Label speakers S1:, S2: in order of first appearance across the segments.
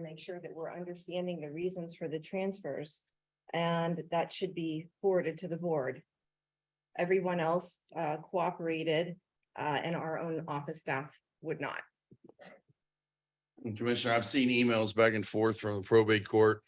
S1: make sure that we're understanding the reasons for the transfers. And that should be forwarded to the board. Everyone else uh, cooperated, uh, and our own office staff would not.
S2: And Commissioner, I've seen emails back and forth from the probate court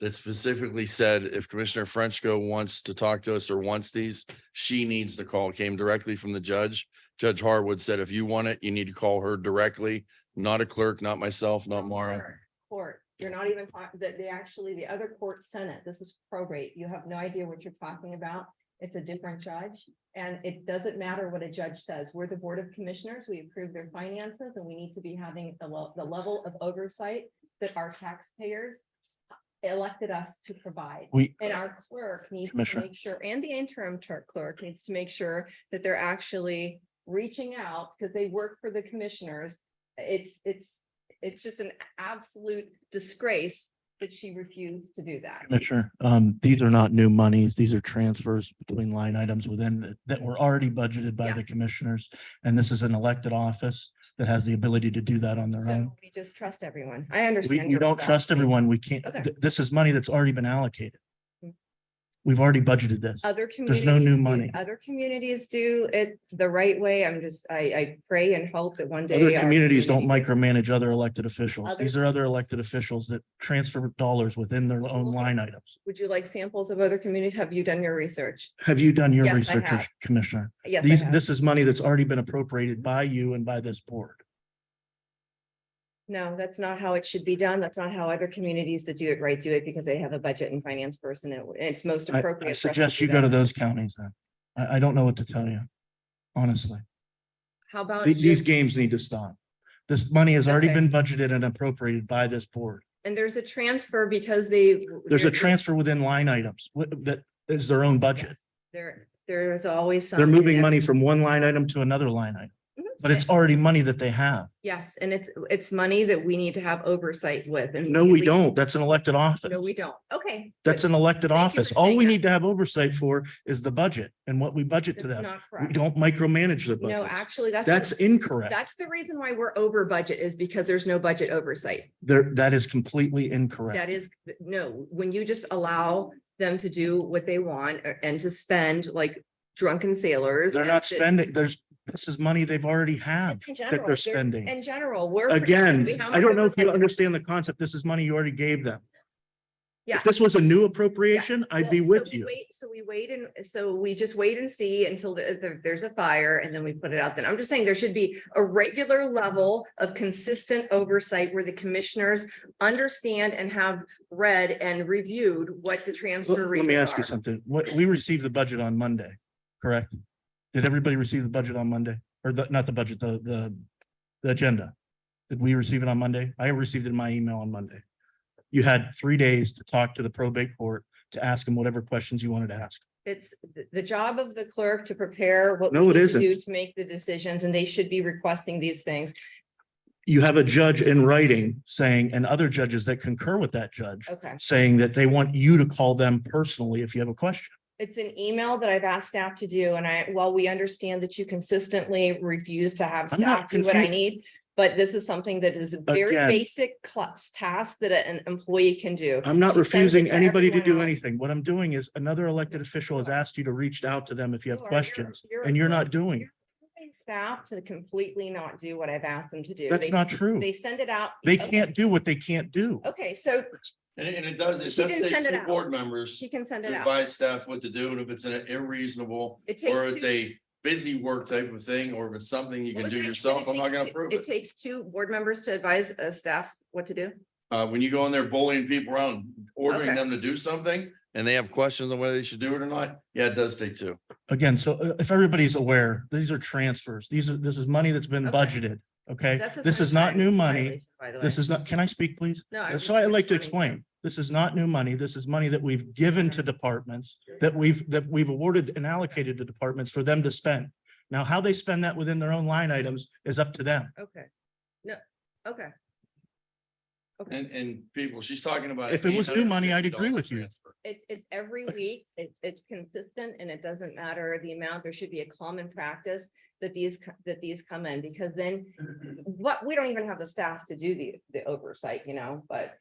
S2: that specifically said if Commissioner Frenchco wants to talk to us or wants these, she needs to call. It Came directly from the judge. Judge Harwood said, if you want it, you need to call her directly, not a clerk, not myself, not
S1: Oh,
S2: Mara.
S1: Court, Court, you're not even, talk- that they actually, the other court senate, this is probate, you have no idea what you're talking about. It's a different judge, and it doesn't matter what a judge says, we're the Board of Commissioners, we approve their finances, and we need to be having the lo- the level of oversight that our taxpayers elected us to provide.
S3: We,
S1: And our clerk needs to
S3: Commissioner.
S1: make sure, and the interim ter- clerk needs to make sure that they're actually reaching out because they work for the commissioners. It's, it's, it's just an absolute disgrace that she refused to do that.
S3: Commissioner, um, these are not new monies. These are transfers between line items within the- that were already budgeted by the
S1: Yes.
S3: commissioners. And this is an elected office that has the ability to do that on their own.
S1: So we just trust everyone. I
S3: We,
S1: understand.
S3: we
S1: your
S3: don't
S1: frustration.
S3: trust everyone. We can't,
S1: Okay.
S3: th- this is money that's already been allocated.
S1: Mm.
S3: We've already budgeted this.
S1: Other
S3: There's
S1: communities.
S3: no new
S1: do-
S3: money.
S1: Other communities do it the right way. I'm just, I, I pray and hope that one day.
S3: Other
S1: our
S3: communities don't
S1: community-
S3: micromanage other elected officials.
S1: Other-
S3: These are other elected officials that transfer dollars within their own
S1: Okay.
S3: line items.
S1: Would you like samples of other communities? Have you done your research?
S3: Have you done your
S1: Yes, I
S3: research,
S1: have.
S3: Commissioner?
S1: Yes. I
S3: These,
S1: have.
S3: this is money that's already been appropriated by you and by this board.
S1: No, that's not how it should be done. That's not how other communities that do it right do it because they have a budget and finance person. It- It's most
S3: I,
S1: appropriate.
S3: I
S1: for us
S3: suggest
S1: do
S3: you go to
S1: that.
S3: those counties then. I, I don't know what to tell you, honestly.
S1: How about?
S3: The- These
S1: just-
S3: games need to stop. This money has already
S1: Okay.
S3: been budgeted and appropriated by this board.
S1: And there's a transfer because they.
S3: There's a
S1: they're-
S3: transfer within line items wi- that is their own budget.
S1: There, there's always.
S3: They're
S1: some-
S3: moving money from one line item to another line item,
S1: Mhm.
S3: but it's already money that they have.
S1: Yes, and it's, it's money that we need to have oversight with and.
S3: No, we
S1: at least-
S3: don't. That's an elected office.
S1: No, we don't. Okay.
S3: That's
S1: but
S3: an elected
S1: Thank you
S3: office.
S1: for
S3: All
S1: saying
S3: we
S1: that.
S3: need to have oversight for is the budget and what we budget to
S1: That's
S3: them.
S1: not
S3: We
S1: correct.
S3: don't micromanage the
S1: No,
S3: budget.
S1: actually, that's.
S3: That's incorrect.
S1: That's the reason why we're over budget is because there's no budget oversight.
S3: There, that is completely
S1: That
S3: incorrect.
S1: is, no, when you just allow them to do what they want or- and to spend like drunken sailors.
S3: They're
S1: and
S3: not
S1: to-
S3: spending, there's, this is money they've already have
S1: In
S3: that
S1: general,
S3: they're
S1: there's-
S3: spending.
S1: In general, we're. we
S3: Again,
S1: have
S3: I don't know if you
S1: oversight.
S3: understand the concept. This is money you already gave them.
S1: Yeah.
S3: If this was a new appropriation, I'd
S1: Well,
S3: be
S1: so
S3: with
S1: we
S3: you.
S1: wait- So we wait and, so we just wait and see until the- the- there's a fire and then we put it out. Then I'm just saying there should be a regular level of consistent oversight where the commissioners understand and have read and reviewed what the transfer.
S3: Let let me
S1: reasons
S3: ask you
S1: are.
S3: something. What, we received the budget on Monday, correct? Did everybody receive the budget on Monday? Or the, not the budget, the, the, the agenda? Did we receive it on Monday? I received it in my email on Monday. You had three days to talk to the probate court, to ask them whatever questions you wanted to ask.
S1: It's th- the job of the clerk to prepare what. we
S3: No, it
S1: need to
S3: isn't.
S1: do To make the decisions and they should be requesting these things.
S3: You have a judge in writing saying, and other judges that concur with that judge,
S1: Okay.
S3: saying that they want you to call them personally if you have a question.
S1: It's an email that I've asked staff to do and I, while we understand that you consistently refuse to have
S3: I'm not
S1: staff do what I
S3: confu-
S1: need. But this is something that is a very
S3: Again.
S1: basic class task that an employee can do.
S3: I'm not
S1: He sends it
S3: refusing
S1: to
S3: anybody to
S1: everyone
S3: do
S1: else.
S3: anything. What I'm doing is another elected official has asked you to reach out to them if you have
S1: You are- you're-
S3: questions and you're not doing. it.
S1: approving Staff to completely not do what I've asked them to do.
S3: That's
S1: They-
S3: not true.
S1: They send it out.
S3: They
S1: Okay.
S3: can't do what they can't do.
S1: Okay, so
S2: And and it does, it
S1: She
S2: does
S1: didn't
S2: take
S1: send it
S2: two
S1: out.
S2: board members
S1: she can send
S2: to
S1: it out.
S2: advise staff what to do, and if it's an irreasonable
S1: It takes
S2: or it's
S1: two-
S2: a busy work type of thing, or if it's something you
S1: Well,
S2: can
S1: it
S2: do
S1: takes- but
S2: yourself,
S1: it
S2: I'm not
S1: takes
S2: gonna
S1: two-
S2: approve
S1: It
S2: it.
S1: takes two board members to advise a staff what to do.
S2: Uh, when you go in there bullying people around, ordering
S1: Okay.
S2: them to do something, and they have questions on whether they should do it or not, yeah, it does take two.
S3: Again, so uh, if everybody's aware, these are transfers. These are, this is money that's been
S1: Okay.
S3: budgeted. Okay,
S1: That's a
S3: this is not
S1: sunshine
S3: new
S1: violation,
S3: money.
S1: by the way.
S3: This is not, can I speak, please?
S1: No,
S3: Uh,
S1: I'm just
S3: So I like to
S1: responding
S3: explain, this is not new money. This is money that we've given to departments that we've, that we've awarded and allocated to departments for them to spend. Now, how they spend that within their own line items is up to them.
S1: Okay, no, okay.
S2: And, and people, she's talking about.
S3: If it was new money, I'd agree with you.
S2: $850
S1: It, it's every week, it, it's consistent and it doesn't matter the amount. There should be a common practice that these, co- that these come in because then
S2: transfer.
S1: what, we don't even have the staff to do the, the oversight, you know, but